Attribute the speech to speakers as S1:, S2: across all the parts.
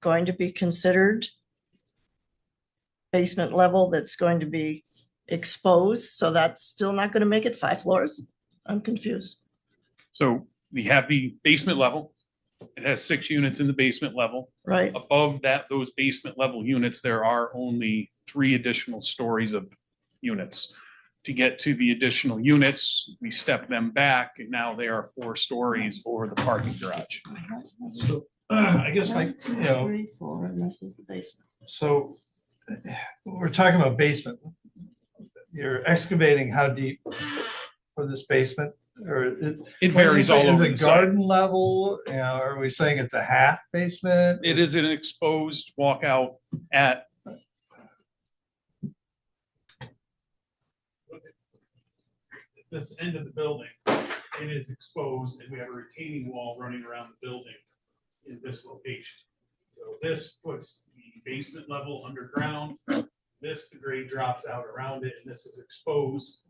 S1: going to be considered? Basement level that's going to be exposed, so that's still not gonna make it five floors? I'm confused.
S2: So we have the basement level. It has six units in the basement level.
S1: Right,
S2: Above that, those basement level units, there are only three additional stories of units. To get to the additional units, we step them back and now they are four stories over the parking garage.
S3: So, I guess my, you know,
S1: Three, four, and this is the basement.
S3: so eh, we're talking about basement. You're excavating how deep for this basement or? it-
S2: It varies all
S3: Is
S2: over the
S3: it
S2: site.
S3: garden level? You know, are we saying it's a half basement?
S2: It is an exposed walkout at,
S4: this end of the building, it is exposed, and we have a retaining wall running around the building in this location. So this puts the basement level underground, this, the grade drops out around it, and this is exposed.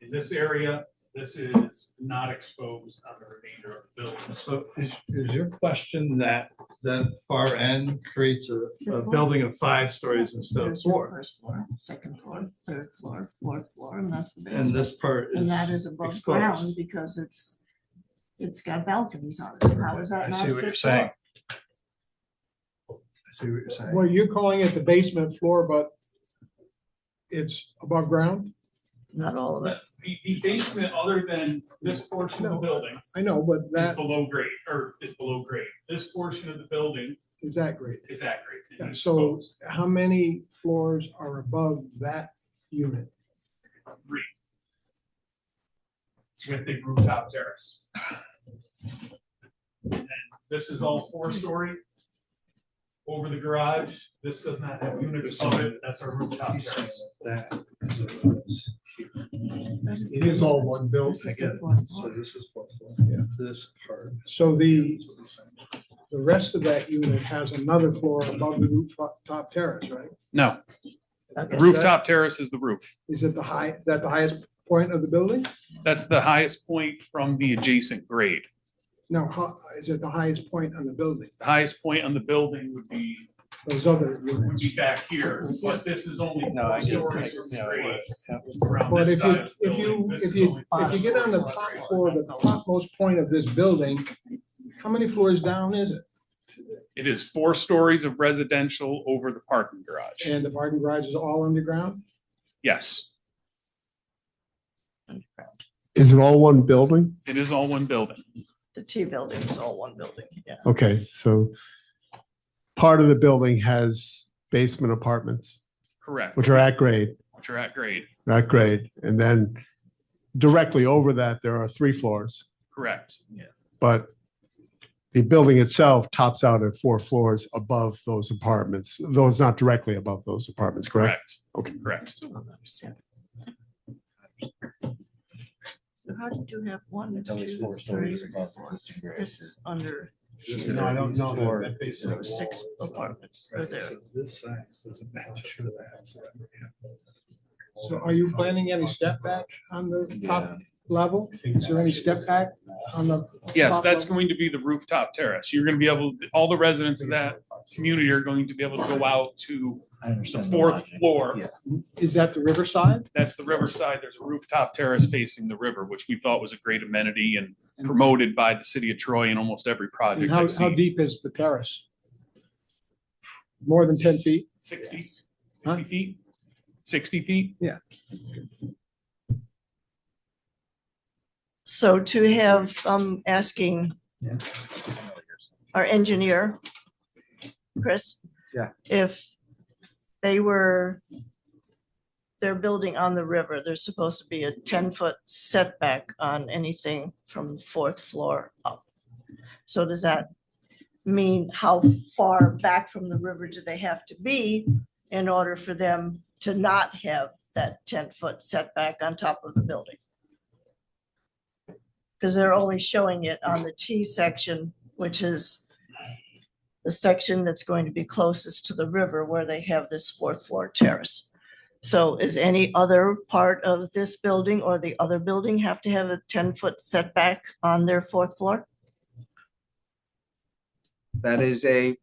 S4: In this area, this is not exposed on the remainder of the building.
S3: So is, is your question that that far end creates a, a building of five stories instead of
S1: There's your
S3: four?
S1: First floor, second floor, third floor, fourth floor, and that's the
S3: And
S1: basement.
S3: this part
S1: And that is
S3: is,
S1: above
S3: exposed.
S1: ground because it's, it's got balconies on it. So How is that
S3: I
S1: not?
S3: see what you're
S1: fifth floor?
S3: saying. I see what you're saying.
S5: Well, you're calling it the basement floor, but it's above ground?
S1: Not all of it.
S4: The, the basement, other than this portion of the building,
S5: I know, but
S4: is
S5: that
S4: below grade, or is below grade. This portion of the building
S5: is that great.
S4: is at grade. and
S5: Yeah,
S4: is
S5: So
S4: exposed.
S5: how many floors are above that unit?
S4: three. With the rooftop terrace. And This is all four-story. Over the garage, this does not have units above it, that's our rooftop terrace.
S3: That is what it is.
S1: That is
S5: It is all one
S1: This
S5: building.
S1: is the fourth
S3: So
S1: floor.
S3: this is fourth floor, this part.
S5: So the, the rest of that unit has another floor above the rooftop terrace, right?
S2: no,
S1: Okay.
S2: the rooftop terrace is the roof.
S5: Is it the high, is that the highest point of the building?
S2: That's the highest point from the adjacent grade.
S5: No, ho- is it the highest point on the building,
S2: The highest point on the building would be
S5: those other
S4: Would
S5: units?
S4: be back here, but this is only
S3: No, I get
S4: four
S3: this.
S4: stories.
S3: Yeah,
S4: grade
S3: yeah.
S4: Around
S5: But
S4: this
S5: if you,
S4: side of the
S5: if
S4: building,
S5: you,
S4: this
S5: if
S4: is
S5: you,
S4: only
S5: if you get on the
S4: five
S5: top
S4: stories.
S5: floor, the topmost point of this building, how many floors down is it?
S2: It is four stories of residential over the parking garage.
S5: And the parking garage is all underground?
S2: Yes,
S6: Is it all one building?
S2: it is all one building.
S1: The T building is all one building, yeah.
S6: Okay, so part of the building has basement apartments,
S2: Correct,
S6: which are at grade,
S2: which are at grade.
S6: at grade. And then directly over that, there are three floors,
S2: Correct.
S6: but the building itself tops out at four floors above those apartments, though it's not directly above those apartments, correct?
S2: Correct.
S6: Okay.
S2: Correct.
S1: Still don't understand. So how did you have one?
S7: It's always
S1: two,
S7: four stories
S1: three,
S7: above
S1: four?
S7: existing grade.
S1: This is under,
S3: No, I don't know. that- that basement
S1: so six
S3: wall is-
S1: apartments are
S3: Right,
S1: there.
S3: so This size doesn't match to that.
S5: So are you planning any step back on the top level?
S3: Is
S5: there any step back? On the,
S2: Yes, that's going to be the rooftop terrace. You're going to be able, all the residents of that community are going to be able to go out to
S7: I
S2: the
S7: understand. the
S2: fourth
S7: logic.
S2: floor.
S7: Yeah.
S5: is that the riverside?
S2: That's the riverside. There's a rooftop terrace facing the river, which we thought was a great amenity and promoted by the city of Troy in almost every
S5: And
S2: project
S5: how,
S2: I've
S5: how
S2: seen.
S5: deep is the terrace? More than ten feet?
S2: Sixty,
S1: Yes.
S5: Huh?
S2: fifty feet? Sixty feet?
S1: So to have, um, asking our engineer, Chris.
S3: Yeah.
S1: If they were, they're building on the river, there's supposed to be a ten-foot setback on anything from the fourth floor up. So does that mean how far back from the river do they have to be in order for them to not have that ten-foot setback on top of the building? Because they're only showing it on the T section, which is the section that's going to be closest to the river where they have this fourth floor terrace. So is any other part of this building or the other building have to have a ten-foot setback on their fourth floor?
S8: That is a